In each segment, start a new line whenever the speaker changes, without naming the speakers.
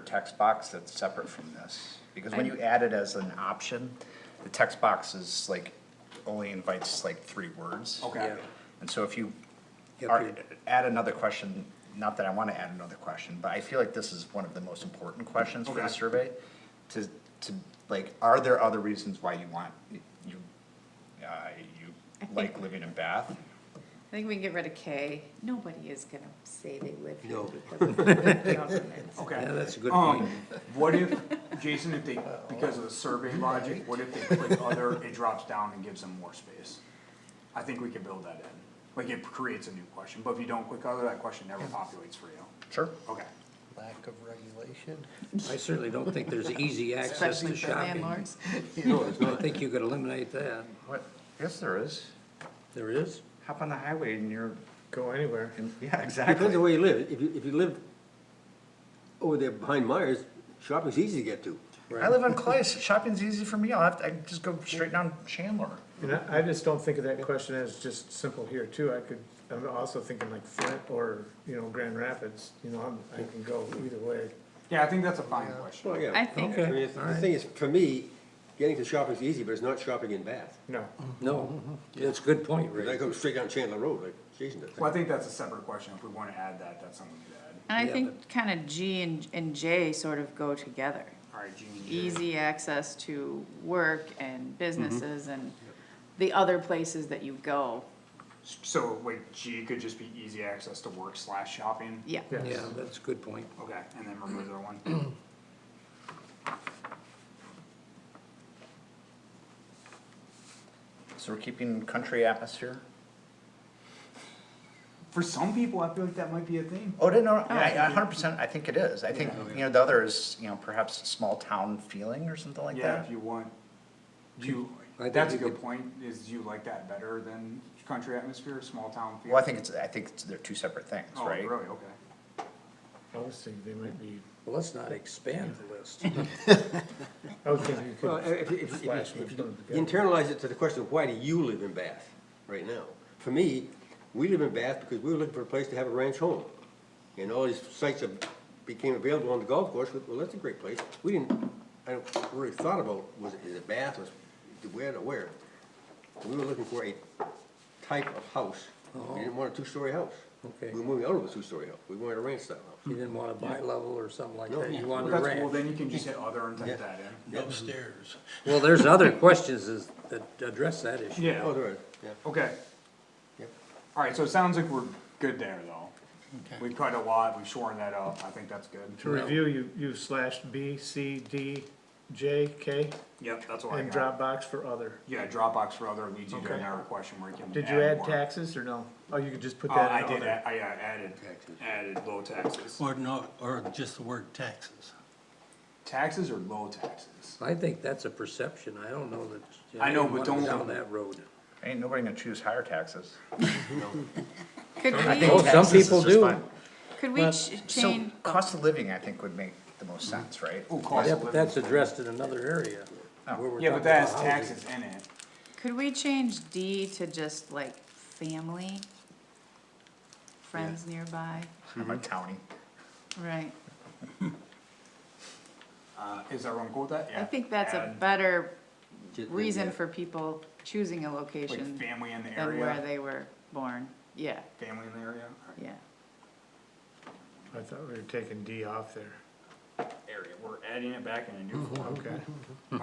text box that's separate from this? Because when you add it as an option, the text box is like, only invites like three words.
Okay.
And so if you
Yeah,
are-
period.
add another question, not that I want to add another question, but I feel like this is one of the most important questions for the
Okay.
survey. To, to, like, are there other reasons why you want, you, uh, you like living in Bath?
I think we can get rid of K. Nobody is gonna say they live here
No.
because of the government.
Okay.
Yeah, that's a good
Um,
point.
What if, Jason, if they, because of the survey
Mm-hmm.
logic, what if they click other, it drops down and gives them more space? I think we could build that in, like it creates a new question, but if you don't click other, that question never populates for you,
Sure.
okay.
Lack of regulation? I certainly don't think there's easy access
Especially
to
for
shopping.
landlords.
No, there's not. I think you could eliminate that.
What, yes, there is.
There is?
Hop on the highway and you're,
Go anywhere.
and- yeah,
Depends on
exactly.
where you live. If you, if you live over there behind Myers, shopping's easy to get to.
I live on Clay, so shopping's easy for me, I'll have to, I can just go straight down Chandler.
And I, I just don't think of that question as just simple here too. I could, I'm also thinking like Flint or, you know, Grand Rapids, you know, I'm, I can go either way.
Yeah, I think that's a fine question,
Well, yeah.
I think-
I mean, it's- The thing is, for me, getting to shopping's easy, but it's not shopping in Bath.
no,
No, that's a good point,
Because I
Ray.
go straight down Chandler Road like Jason does.
well, I think that's a separate question, if we wanna add that, that's something we could add.
And I
Yeah,
think kinda G and, and J sort of go together.
Alright, Jean. you're-
Easy access to work and businesses
Mm-hmm.
and the other places that you go.
So, wait, G could just be easy access to work slash shopping?
Yeah.
Yeah, that's a good point.
Okay, and then remove the other one,
So we're keeping country atmosphere?
for some people, I feel like that might be a thing.
Oh, no, no, I, a hundred percent, I think it is, I think, you know, the other is, you know, perhaps small town feeling or something like
Yeah,
that.
if you want, do you,
I think
that's a
you
good
could-
point, is do you like that better than country atmosphere, small town feel?
Well, I think it's, I think it's- they're two separate things,
Oh,
right?
really, okay.
Obviously, they might be,
Well, let's not expand the list.
I would think you Well, could if, if, if, flash if them, you put them together. internalize it to the question of why do you live in Bath right now? For me, we live in Bath because we were looking for a place to have a ranch home. And all these sites that became available on the golf course, well, that's a great place. We didn't, I don't really thought about, was it, is it Bath, was, it where to where? We were looking for a type of house. We didn't want a two-story house.
Okay.
We were moving out of a two-story house. We wanted a ranch style house.
You didn't want a bi-level or something like
No.
that. You
Well,
wanted a
that's cool,
ranch.
then you can just hit other and type that in.
upstairs.
Well, there's other questions is- that address that issue.
Oh, there is, yeah.
Okay.
Yep.
Alright, so it sounds like we're good there, though.
Okay.
We've cut a lot, we've shortened that up, I think that's
To
good.
review, you, you slashed B, C, E, D, J, K,
Yep, that's what I
and
got.
Dropbox for other.
Yeah, Dropbox for other leads you to
Okay.
another question where you can
Did you add
more.
taxes or no? Oh, you could just put
Uh,
that
I
in
did,
other.
add- I uh, added, added low taxes.
Or no, or just the word taxes.
Taxes or low taxes?
I think that's a perception. I don't know that. you
I know,
didn't
but
want to
don't-
Down that road.
Ain't nobody gonna choose higher taxes.
Could
Oh,
we,
some
Taxes is
people
just
do.
fine.
could we ch-
So,
change?
cost of living, I think, would make the most sense, right?
Ooh, cost
Yeah,
of
but
living.
that's addressed in another area. where we're
Yeah, but
talking
that has
about housing.
taxes in it.
Could we change D to just like family? Friends nearby,
I'm a townie.
right?
Uh, is everyone cool with that?
I
Yeah.
think that's a
Add,
better
Just-
reason
yeah.
for people choosing a
Like
location
family in the
than where
area,
they were born. Yeah,
family in the area, Alright,
yeah.
I thought we were taking D off there.
area, we're adding it back in a new form.
Okay.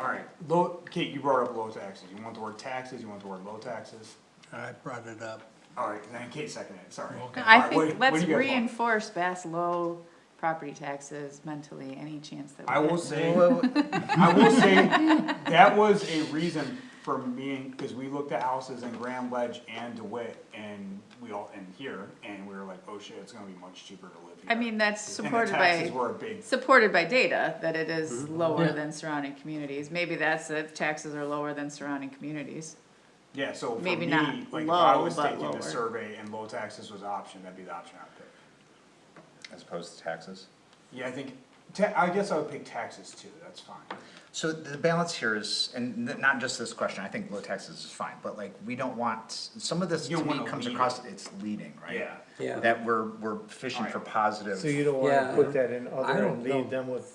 Alright, low, Kate, you brought up low taxes, you want the word taxes, you want the word low taxes?
I brought it up.
Alright, then Kate seconded it, sorry.
Okay.
I
Alright, what-
think,
what do
let's
you guys want?
reinforce Bass low property taxes mentally, any chance that we
I
get.
will say, I will say, that was a reason for me, cause we looked at houses in Grand Ledge and DeWitt, and we all, and here, and we were like, oh shit, it's gonna be much cheaper to live here.
I mean, that's
And the
supported
taxes
by,
were Mm-hmm. a big
supported by data, that it is lower
Yeah.
than surrounding communities. Maybe that's it, taxes are lower than surrounding communities.
Yeah, so for
Maybe
me,
not
like if I
low,
was
but
taking
lower.
the survey and low taxes was option, that'd be the option I'd pick.
As opposed to taxes.
Yeah, I think, ta- I guess I would pick taxes too, that's fine.
So the balance here is, and n- not just this question, I think low taxes is fine, but like, we don't want, some of this
You
to me
wanna
comes
lead
across, it's leading, right?
Yeah.
Yeah.
That we're, we're fishing for positive.
So you don't
Yeah.
wanna put that in
I
other
don't
and
know.
leave them with